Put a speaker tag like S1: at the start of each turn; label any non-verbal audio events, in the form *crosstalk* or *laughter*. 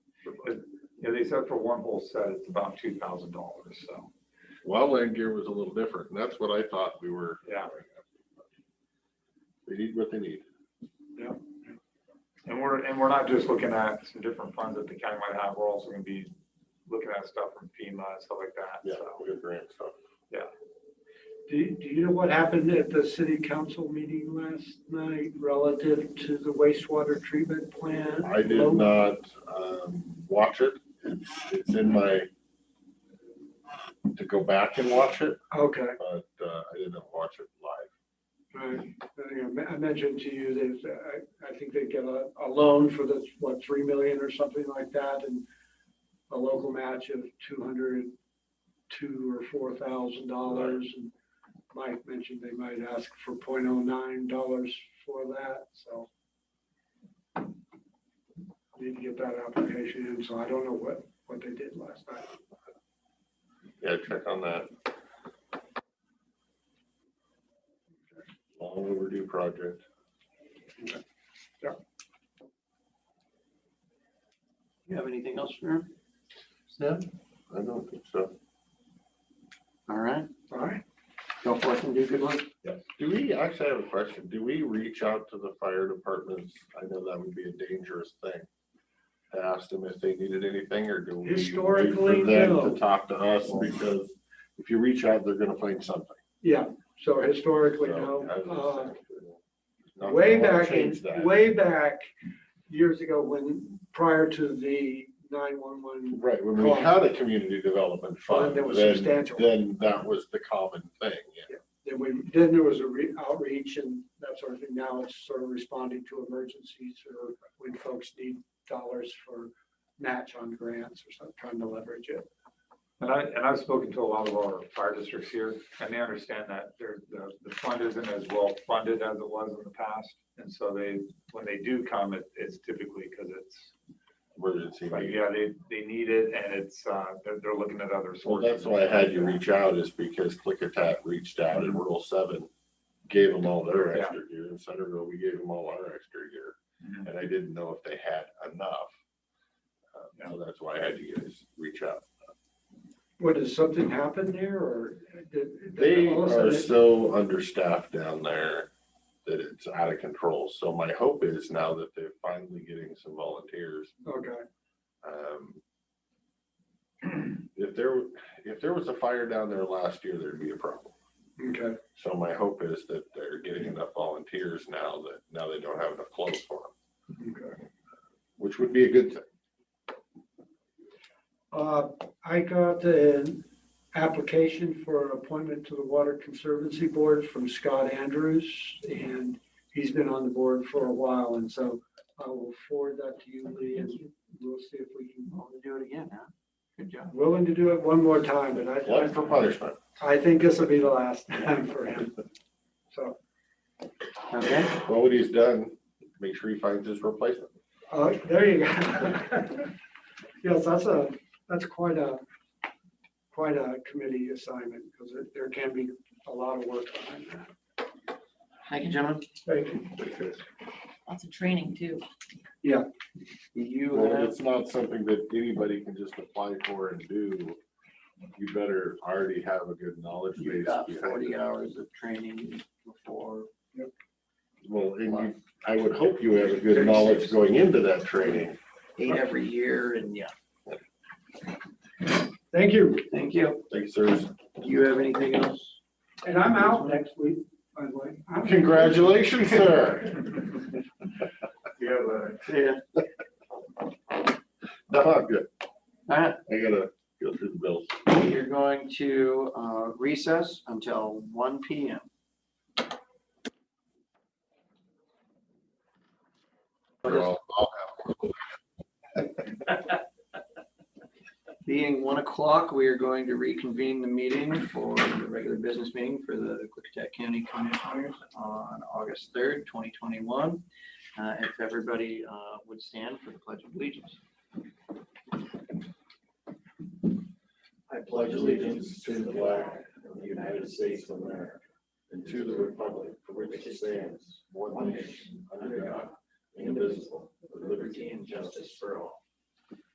S1: Yeah, they said for one whole set, it's about two thousand dollars, so,
S2: Wildland gear was a little different, and that's what I thought we were.
S1: yeah.
S2: They need what they need.
S1: And we're, and we're not just looking at some different funds that the county might have, we're also gonna be looking at stuff from FEMA and stuff like that, so.
S2: We got grant stuff.
S3: Do, do you know what happened at the city council meeting last night relative to the wastewater treatment plant?
S2: I did not, um, watch it. It's, it's in my, to go back and watch it,
S3: Okay,
S2: but, uh, I didn't watch it live.
S3: right. I think I me- I mentioned to you that uh, I, I think they get a, a loan for this, what, three million or something like that and a local match of two hundred, two or four thousand dollars. And Mike mentioned they might ask for 0.09 dollars for that, so. Need to get that application in, so I don't know what, what they did last night.
S2: Yeah, check on that. Long overdue project.
S4: You have anything else for him?
S2: Yeah. I don't think so.
S4: All right,
S3: All right,
S4: go forth and do good work.
S2: Do we, actually I have a question. Do we reach out to the fire departments? I know that would be a dangerous thing. to Ask them if they needed anything or do we? wait for
S3: Historically,
S2: them
S3: no.
S2: To talk to us because if you reach out, they're gonna find something.
S3: yeah, so historically,
S2: So,
S3: no.
S2: I
S3: uh,
S2: was just- Not
S3: Way
S2: gonna
S3: back in,
S2: change that.
S3: way back years ago when, prior to the nine-one-one,
S2: Right, when we had a community development fund,
S3: That was
S2: then,
S3: substantial.
S2: then that was the common thing. yeah.
S3: then we, then there was a re- outreach and that sort of thing. Now it's sort of responding to emergencies or when folks need dollars for match on grants or something, trying to leverage it.
S1: And I, and I've spoken to a lot of our fire districts here, and they understand that there, the, the fund isn't as well funded as it was in the past. And so they, when they do come, it, it's typically because it's,
S2: Emergency.
S1: like, yeah, they, they need it and it's, uh, they're, they're looking at other
S2: Well,
S1: sources.
S2: that's why I had you reach out is because Clickitat reached out and Rural Seven gave them all their
S1: Yeah.
S2: extra gear. In Centerville, we gave them all our extra gear.
S1: Mhm.
S2: And I didn't know if they had enough. Uh, So that's why I had you guys reach out.
S3: What, has something happened there or? did- did
S2: They
S3: all of a
S2: are
S3: sudden-
S2: so understaffed down there that it's out of control. So my hope is now that they're finally getting some volunteers,
S3: Okay,
S2: um, *clears throat* if there, if there was a fire down there last year, there'd be a problem.
S3: okay,
S2: So my hope is that they're getting enough volunteers now that now they don't have enough clothes for them,
S3: okay.
S2: which would be a good thing.
S3: Uh, I got an application for an appointment to the Water Conservancy Board from Scott Andrews, and he's been on the board for a while, and so I will forward that to you, Lee, and we'll see if we can,
S4: Want to do it again, huh? Good job.
S3: willing to do it one more time, but
S2: Life for
S3: I,
S2: punishment.
S3: I think this will be the last *laughs* time for him. So,
S4: Okay,
S2: Well, what he's done, make sure he finds his replacement.
S3: uh, there you go. *laughs* Yes, that's a, that's quite a, quite a committee assignment, because there, there can be a lot of work behind that.
S4: thank you, gentlemen.
S3: Thank you.
S5: Lots of training too.
S4: You
S2: Well,
S4: have,
S2: it's not something that anybody can just apply for and do. You better already have a good knowledge
S4: you
S2: base.
S4: got
S2: behind
S4: forty
S2: it.
S4: hours of training before.
S2: Well, and you- I would hope you have a good knowledge going into that training.
S4: eight every year and yeah.
S3: Thank you.
S4: Thank you.
S2: Thanks, sirs.
S4: Do you have anything else?
S3: And I'm out next week, by the way. I'm-
S2: Congratulations, sir. *laughs*
S1: You have a-
S4: Yeah.
S2: No, I'm good.
S4: All right,
S2: I gotta go through the bills.
S4: you're going to uh, recess until one P M.
S2: They're all- all
S4: Being one o'clock, we are going to reconvene the meeting for the regular business meeting for the Clickatack County Commissioners on August third, twenty twenty-one. If everybody uh, would stand for the pledge of allegiance.
S6: I pledge allegiance to the flag of the United States of America and to the republic for which it stands, one nation, under God, indivisible, with liberty and justice for all.